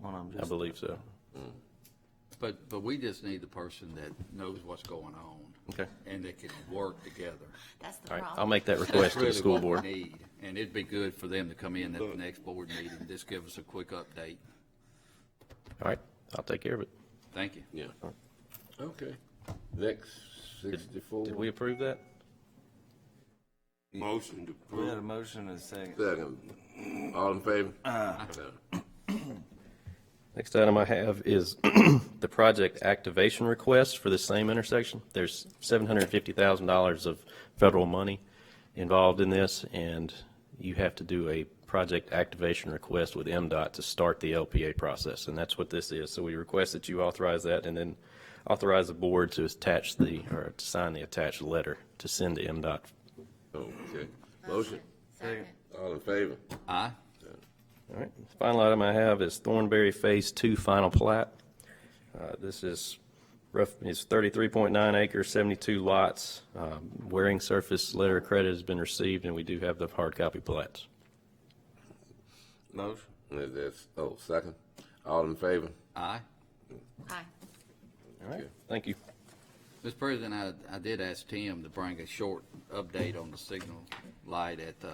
one of them. I just- uh, believe so. But, but we just need the person that knows what's going on. Okay. And that can work together. That's the All right, problem. I'll make that request to the That's school really what board. we need. And it'd be good for them to come in at the next board meeting, just give us a quick update. All right, I'll take care of it. Thank you. Yeah. Okay. Next, sixty-four. Did we approve that? Motion to We had approve. a motion and a second. Second. All in favor? Next item I have is the project activation request for the same intersection. There's $750,000 of federal money involved in this, and you have to do a project activation request with MDOT to start the LPA process, and that's what this is. So we request that you authorize that and then authorize the board to attach the, or to sign the attached letter to send to MDOT. Oh, Okay. Motion. Second. All in favor? Aye? All right, the final item I have is Thornberry Phase Two Final Plat. Uh, This is rough, it's 33.9 acres, 72 lots. Um, Wearing surface letter of credit has been received, and we do have the hard copy plats. Motion. Is this, oh, second. All in favor? Aye? Aye. All right, thank you. Mr. President, I, I did ask Tim to bring a short update on the signal light at, uh,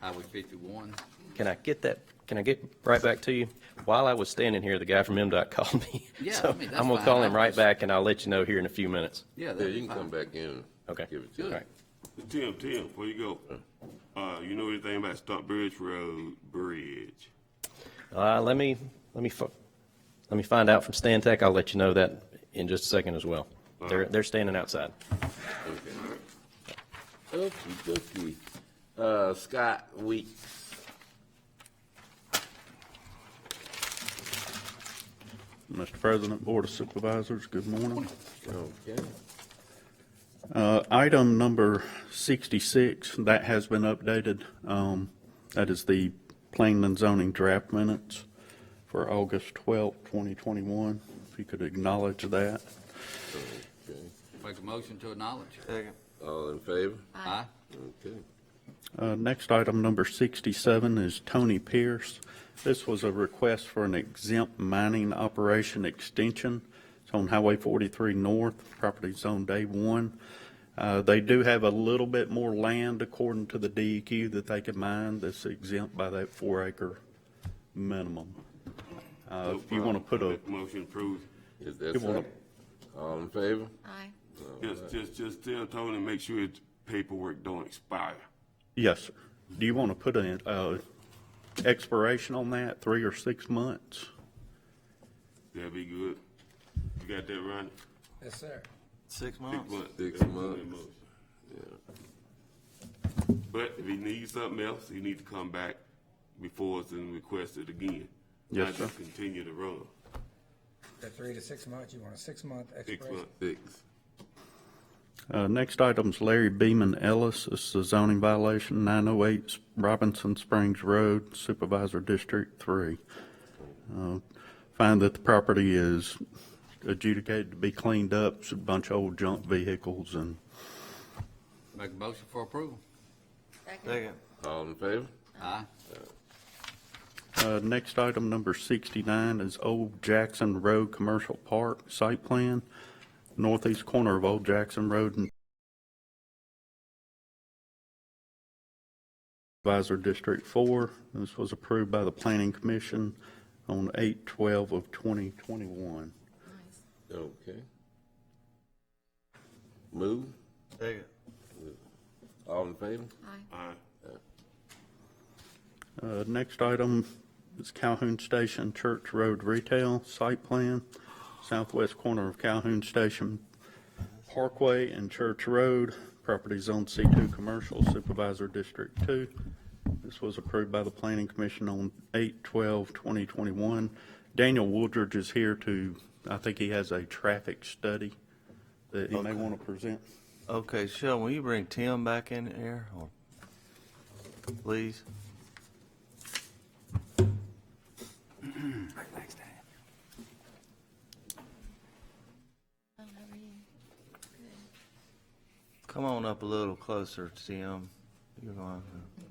Highway fifty-one. Can I get that, can I get right back to you? While I was standing here, the guy from MDOT called me. Yeah, I So mean, that's I'm gonna fine. call I him right was- back, and I'll let you know here in a few minutes. Yeah, Yeah, that'd you be can come fine. back in. Okay. Give it to All us. right. Tim, Tim, before you go, uh, you know anything about Stump Bridge Road Bridge? Uh, Let me, let me, fi- let me find out from Stan Tech. I'll let you know that in just a second as well. They're, they're standing outside. Okey dokey. Uh, Scott Weeks. Mr. President, Board of Supervisors, good morning. Okay. Uh, Item number 66, that has been updated. Um, That is the planning and zoning draft minutes for August 12, 2021. If you could acknowledge that. Okay. Make a motion to acknowledge. Second. All in favor? Aye? Okay. Uh, Next item, number 67, is Tony Pierce. This was a request for an exempt mining operation extension. It's on Highway 43 North, property zone day one. Uh, They do have a little bit more land according to the DEQ that they can mine that's exempt by that four acre minimum. Uh, If you want to put a, Make Motion approved. Is that You wanna- second? All in favor? Aye. Just, just, just tell Tony, make sure his paperwork don't expire. yes, sir. Do you want to put an uh, expiration on that, three or six months? That'd be good. You got that, Ronnie? Six Six months. months. Six That's a good months. motion. But if he needs something else, he need to come back before us and request it again. Yes, Not just sir. Continue to run. That three to six months, you want a six-month Six expiration? months. Six. Uh, Next item's Larry Beeman Ellis. This is a zoning violation, 908 Robinson Springs Road, Supervisor District 3. Uh, Find that the property is adjudicated to be cleaned up, it's a bunch of old junk vehicles and Make a motion for approval. Second. All in favor? Aye? Uh, Next item, number 69, is Old Jackson Road Commercial Park Site Plan, northeast corner of Old Jackson Road and Advisor District 4. This was approved by the Planning Commission on 8/12 of 2021. Okay. Move. Second. All in favor? Aye. Uh, Next item is Calhoun Station Church Road Retail Site Plan, southwest corner of Calhoun Station Parkway and Church Road, property zone C2 Commercial Supervisor District 2. This was approved by the Planning Commission on 8/12/2021. Daniel Woodridge is here to, I think he has a traffic study that he may want to present. Okay, Sheldon, will you bring Tim back in here, or, please? Oh, how are you? Come on up a little closer, Tim. You're going, to-